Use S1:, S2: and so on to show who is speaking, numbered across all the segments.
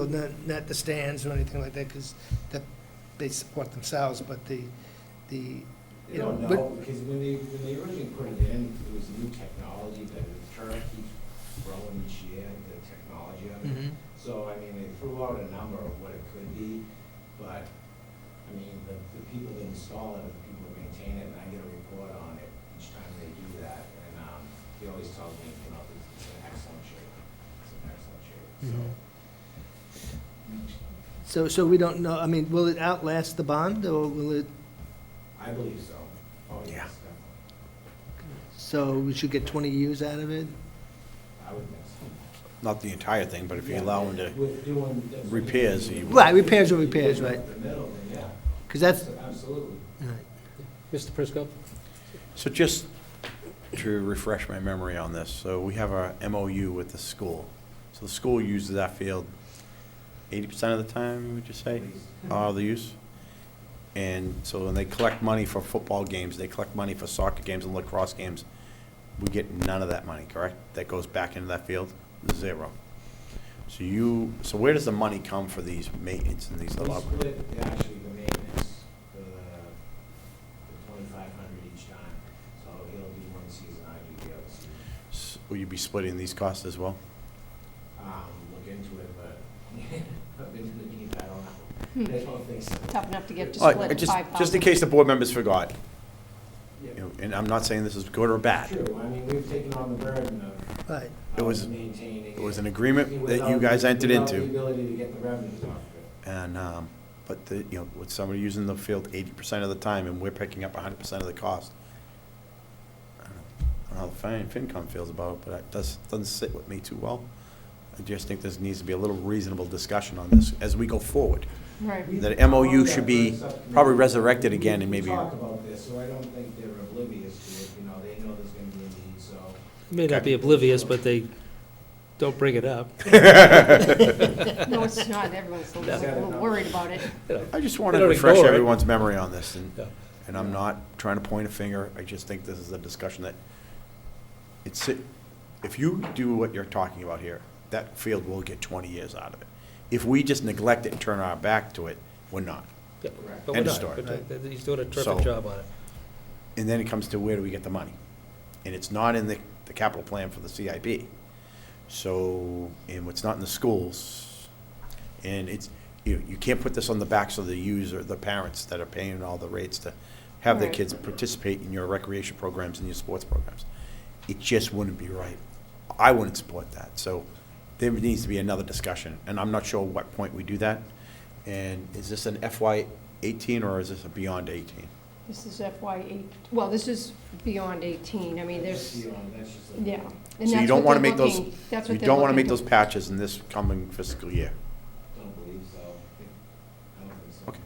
S1: with the- not the stands or anything like that, because that, they support themselves, but the, the,
S2: You
S1: you know,
S2: don't
S1: but,
S2: know, because when they, when they originally put it in, it was new technology that the turf keeps growing each year, the technology of it.
S1: Mhm.
S2: So, I mean, they threw out a number of what it could be, but, I mean, the, the people that install it, and the people that maintain it, and I get a report on it each time they do that, and, um, he always tells me, you know, it's, it's an excellent shape, it's an excellent shape, so.
S1: Mhm. Mm-hmm. so, so we don't know, I mean, will it outlast the bond, or will it,
S2: I believe so. Oh,
S3: Yeah.
S2: yes, definitely.
S1: so we should get twenty years out of it?
S2: I would think so.
S3: Not the entire thing, but if you allow them to,
S2: With doing this-
S3: repairs, you-
S1: Right, repairs are repairs,
S2: If you do
S1: right.
S2: it in The middle, then yeah.
S1: Because that's,
S2: Absolutely.
S1: all right.
S4: Mr. Prisco?
S3: so just to refresh my memory on this, so we have our MOU with the school. So the school uses that field eighty percent of the time, would you say, uh, the use? And so when they collect money for football games, they collect money for soccer games and lacrosse games, we get none of that money, correct? That goes back into that field, zero. So you, so where does the money come for these maintenance and these?
S2: We
S3: allow-
S2: split, actually, the maintenance, the, the twenty-five hundred each time, so he'll do one season, I do the other season.
S3: S- Will you be splitting these costs as well?
S2: Um, look into it, but I've been looking at that, I don't know. I don't think so.
S5: Tough enough to get to
S3: All right,
S5: split
S3: just-
S5: five thousand.
S3: Just in case the board members forgot,
S2: Yeah.
S3: you know, and I'm not saying this is good or bad.
S2: True, I mean, we've taken on the burden of-
S1: right.
S3: It was-
S2: of maintaining.
S3: It was
S2: it
S3: an agreement that you
S2: without-
S3: guys entered
S2: without
S3: into,
S2: the ability to get the revenues off of it.
S3: and, um, but the, you know, with somebody using the field eighty percent of the time, and we're picking up hundred percent of the cost. I don't know- I don't know how the Fin- FinCom feels about it, but it does, doesn't sit with me too well. I just think there needs to be a little reasonable discussion on this as we go forward.
S5: Right.
S3: That MOU should be probably resurrected again and maybe-
S2: We talked about this, so I don't think they're oblivious to it, you know, they know there's gonna be a need, so.
S4: May not be oblivious, but they don't bring it up.
S5: No, it's not, everyone's a little- a little worried about it.
S4: you know.
S3: I just want to
S4: They don't
S3: refresh
S4: ignore it.
S3: everyone's memory on this, and,
S4: Yeah.
S3: and I'm not trying to point a finger, I just think this is a discussion that, it's, if you do what you're talking about here, that field will get twenty years out of it. If we just neglect it and turn our back to it, we're not.
S4: Yeah,
S2: Correct.
S4: But we're
S3: End of
S4: not.
S3: story.
S4: But uh, He's doing a
S3: So-
S4: terrific job on it.
S3: And then it comes to where do we get the money? And it's not in the, the capital plan for the CIP. So, and what's not in the schools, and it's, you, you can't put this on the backs of the user, the parents that are paying all the rates to have their
S5: Right.
S3: kids participate in your recreation programs and your sports programs. It just wouldn't be right. I wouldn't support that. So there needs to be another discussion, and I'm not sure what point we do that. And is this an FY eighteen or is this a beyond eighteen?
S5: This is FY eight, well, this is beyond eighteen, I mean,
S2: That's
S5: there's,
S2: the only- that's just a-
S5: yeah. And
S3: So you
S5: that's
S3: don't
S5: what
S3: want to
S5: they're
S3: make those,
S5: looking- that's
S3: you
S5: what they're
S3: don't want to
S5: looking
S3: make those
S5: to-
S3: patches in this coming fiscal year.
S2: Don't believe so, I think- I don't think so.
S3: Okay.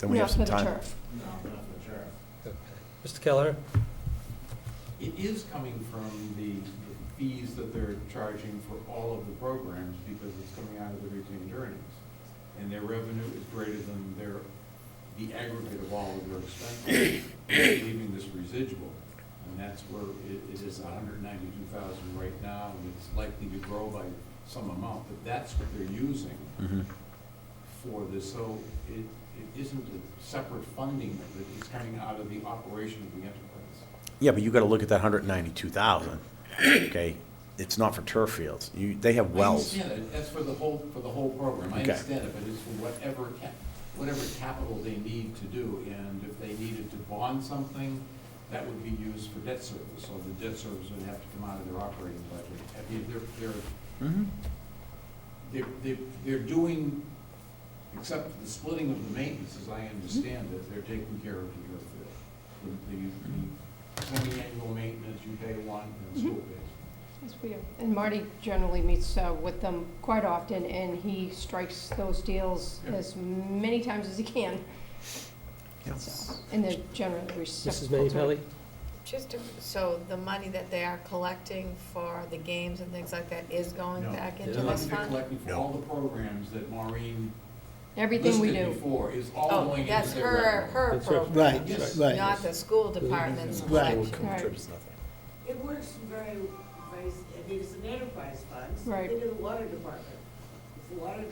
S3: Then we have
S5: Not
S3: some
S5: for the
S3: time.
S5: turf.
S2: No, not for sure.
S4: Mr. Keller?
S6: It is coming from the the fees that they're charging for all of the programs because it's coming out of the retained earnings. And their revenue is greater than their, the aggregate of all of their expenses, leaving this residual. And that's where it, it is hundred ninety-two thousand right now, and it's likely to grow by some amount, but that's what they're using
S3: Mhm.
S6: for this. So it, it isn't a separate funding of it, it's coming out of the operation of the enterprise.
S3: Yeah, but you got to look at that hundred and ninety-two thousand, okay? It's not for turf fields. You, they have wells.
S6: I understand it, that's for the whole, for the whole program, I
S3: Okay.
S6: understand it, but it's for whatever, cap- whatever capital they need to do, and if they needed to bond something, that would be used for debt service, so the debt service would have to come out of their operating budget. I mean, they're,
S3: Mhm.
S6: they're, they're, they're doing, except for the splitting of the maintenance, as I understand it, they're taking care of the earth field. The, the semi-annual maintenance, you pay one, and school pays.
S5: Yes, we are. And Marty generally meets uh, with them quite often, and he strikes those deals
S6: Yeah.
S5: as many times as he can.
S3: Yeah.
S5: So, And they're generally
S4: Mrs.
S5: reciprocal.
S4: Minipelli?
S5: to it.
S7: Just to, so the money that they are collecting for the games and things like that is going
S6: No.
S7: back
S4: Yeah.
S7: into
S6: The money
S7: this
S6: they're
S7: fund?
S6: collecting for
S3: No.
S6: all the programs that Maureen
S5: Everything we
S6: listed
S5: do.
S6: before is all
S7: Oh,
S6: going into
S7: that's
S6: their
S7: her,
S6: revenue.
S7: her
S4: That's her-
S1: Right,
S6: Yes.
S1: right.
S7: not the school department's
S1: Right.
S7: collection.
S8: It works very, very, I mean, it's an enterprise fund.
S5: Right.
S8: Look at the water department. If the water